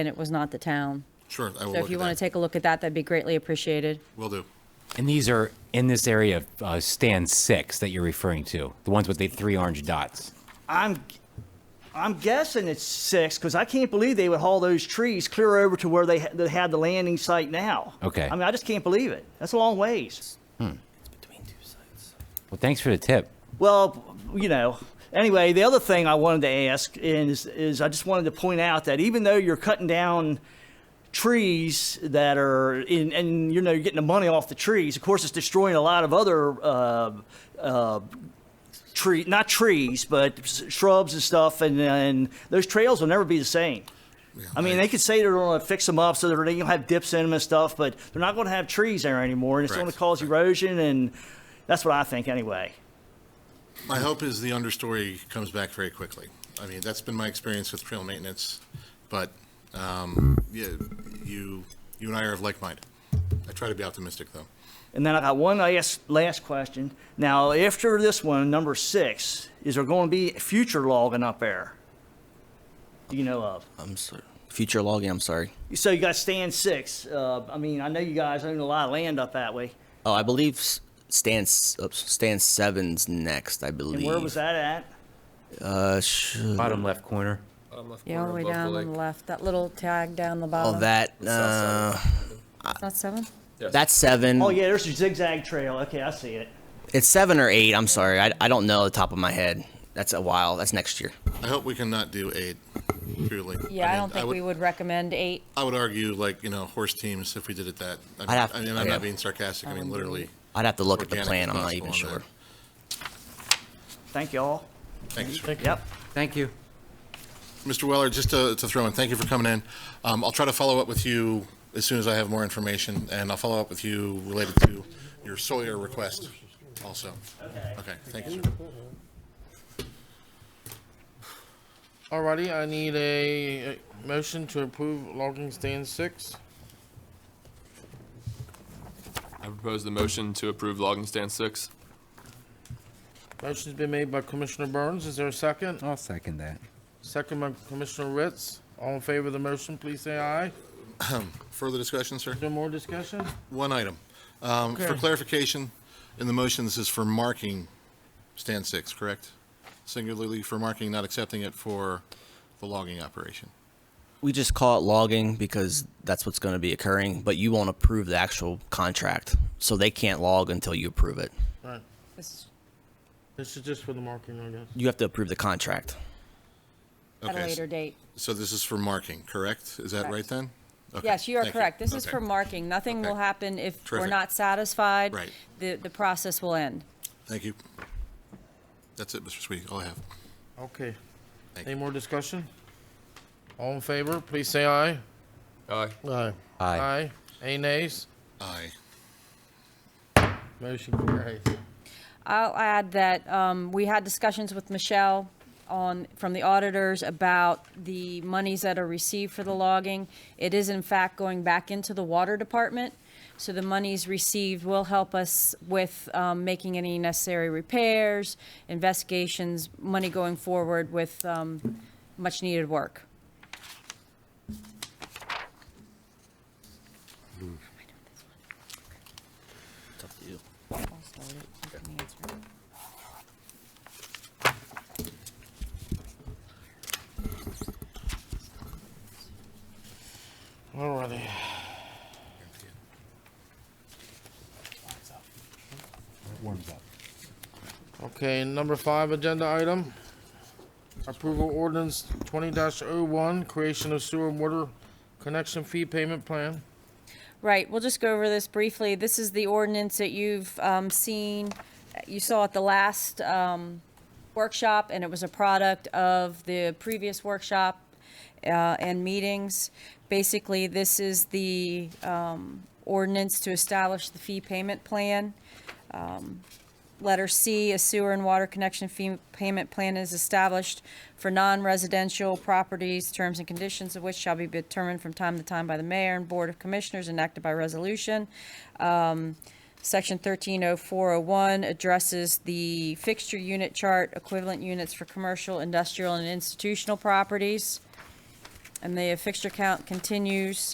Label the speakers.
Speaker 1: and it was not the town.
Speaker 2: Sure, I will
Speaker 1: So if
Speaker 2: look
Speaker 1: you
Speaker 2: at
Speaker 1: want to
Speaker 2: that.
Speaker 1: take a look at that, that'd be greatly appreciated.
Speaker 2: Will do.
Speaker 3: And these are in this area of uh, stand six that you're referring to, the ones with the three orange dots.
Speaker 4: I'm, I'm guessing it's six because I can't believe they would haul those trees clear over to where they, ha- they had the landing site now.
Speaker 3: Okay.
Speaker 4: I mean, I just can't believe it. That's a long ways.
Speaker 3: Well, thanks for the tip.
Speaker 4: Well, you know. Anyway, the other thing I wanted to ask is, is I just wanted to point out that even though you're cutting down trees that are in, and you know you're getting the money off the trees, of course it's destroying a lot of other uh, uh, tree, not trees, but s- shrubs and stuff, and, and those trails will never be the same. I mean, they could say they're going to fix them up so they're going to have dips in them and stuff, but they're not going to have trees there anymore, and it's going to
Speaker 2: Correct.
Speaker 4: cause erosion, and that's what I think anyway.
Speaker 2: My hope is the understory comes back very quickly. I mean, that's been my experience with trail maintenance, but, um, yeah, you, you and I are of like mind. I try to be optimistic, though.
Speaker 4: And then I got one last, last question. Now, after this one, number six, is there going to be future logging up there? Do you know of?
Speaker 5: I'm sorry. Future logging, I'm sorry.
Speaker 4: So you got stand six. Uh, I mean, I know you guys own a lot of land up that way.
Speaker 5: Oh, I believe s- stand s- oops, stand seven's next. I believe.
Speaker 4: And where was that Uh-huh. at?
Speaker 5: Uh, sh-
Speaker 3: Bottom left corner.
Speaker 1: Yeah, all the way down on the left, that little tag down the bottom.
Speaker 5: oh, that. Uh,
Speaker 1: It's Not seven?
Speaker 5: that's seven.
Speaker 4: Oh, yeah, there's a zigzag trail. Okay, I see it.
Speaker 5: It's seven or eight. I'm sorry. I, I don't know the top of my head. That's a while. That's next year.
Speaker 2: I hope we cannot do eight, truly.
Speaker 1: Yeah, I
Speaker 2: mean, Uh,
Speaker 1: don't think we would recommend eight.
Speaker 2: I would argue, like, you know, horse teams, if we did it that. I mean,
Speaker 5: I'd have-
Speaker 2: I mean, I'm
Speaker 5: I'd
Speaker 2: not
Speaker 5: have-
Speaker 2: being sarcastic, I mean, literally.
Speaker 5: I'd have to look at the
Speaker 2: organic
Speaker 5: plan.
Speaker 2: as
Speaker 5: I'm not
Speaker 2: possible
Speaker 5: even
Speaker 2: on
Speaker 5: sure.
Speaker 2: that.
Speaker 4: Thank you all.
Speaker 2: Thanks.
Speaker 4: Yep.
Speaker 3: Thank you.
Speaker 2: Mr. Weller, just to, to throw in, thank you for coming in. Um, I'll try to follow up with you as soon as I have more information, and I'll follow up with you related to your Sawyer request also. Okay. Okay, thank you, sir.
Speaker 6: Alrighty, I need a a motion to approve logging stand six.
Speaker 7: I propose the motion to approve logging stand six.
Speaker 6: Motion's been made by Commissioner Burns. Is there a second?
Speaker 3: I'll second that.
Speaker 6: Second by Commissioner Ritz. All in favor of the motion, please say aye. Is
Speaker 2: Further discussion, sir?
Speaker 6: there more discussion?
Speaker 2: One item. Um, For
Speaker 6: Okay.
Speaker 2: clarification, in the motion, this is for marking stand six, correct? Singularly for marking, not accepting it for the logging operation.
Speaker 5: We just call it logging because that's what's going to be occurring. But you won't approve the actual contract, so they can't log until you approve it.
Speaker 6: Right.
Speaker 1: This-
Speaker 6: This is just for the marking, I guess.
Speaker 5: You have to approve the contract.
Speaker 1: At a
Speaker 2: Okay, s-
Speaker 1: later date.
Speaker 2: So this is for marking, correct? Is that right then? Okay,
Speaker 1: Yes, you are
Speaker 2: thank
Speaker 1: correct. This is
Speaker 2: Okay.
Speaker 1: for marking. Nothing will
Speaker 2: Okay.
Speaker 1: happen if we're
Speaker 2: Terrific.
Speaker 1: not satisfied.
Speaker 2: Right.
Speaker 1: The, the process will end.
Speaker 2: Thank you. That's it, Mr. Sweetie, all I have.
Speaker 6: Okay.
Speaker 2: Thank
Speaker 6: Any more discussion? All in favor, please say aye.
Speaker 7: Aye.
Speaker 6: Aye.
Speaker 3: Aye.
Speaker 6: Aye. Any nays?
Speaker 2: Aye.
Speaker 6: Motion carries.
Speaker 1: I'll add that um, we had discussions with Michelle on, from the auditors about the monies that are received for the logging. It is in fact going back into the water department, so the monies received will help us with um, making any necessary repairs, investigations, money going forward with um, much-needed work.
Speaker 6: Alrighty. Okay, number five agenda item. Approval ordinance twenty oh one creation of sewer and water connection fee payment plan.
Speaker 1: Right, we'll just go over this briefly. This is the ordinance that you've um, seen, you saw at the last um, workshop, and it was a product of the previous workshop uh, and meetings. Basically, this is the um, ordinance to establish the fee payment plan. Letter C, a sewer and water connection fee payment plan is established for non-residential properties, terms and conditions of which shall be determined from time to time by the mayor and board of commissioners enacted by resolution. Um, Section 130401 addresses the fixture unit chart, equivalent units for commercial, industrial, and institutional properties. and the fixture count continues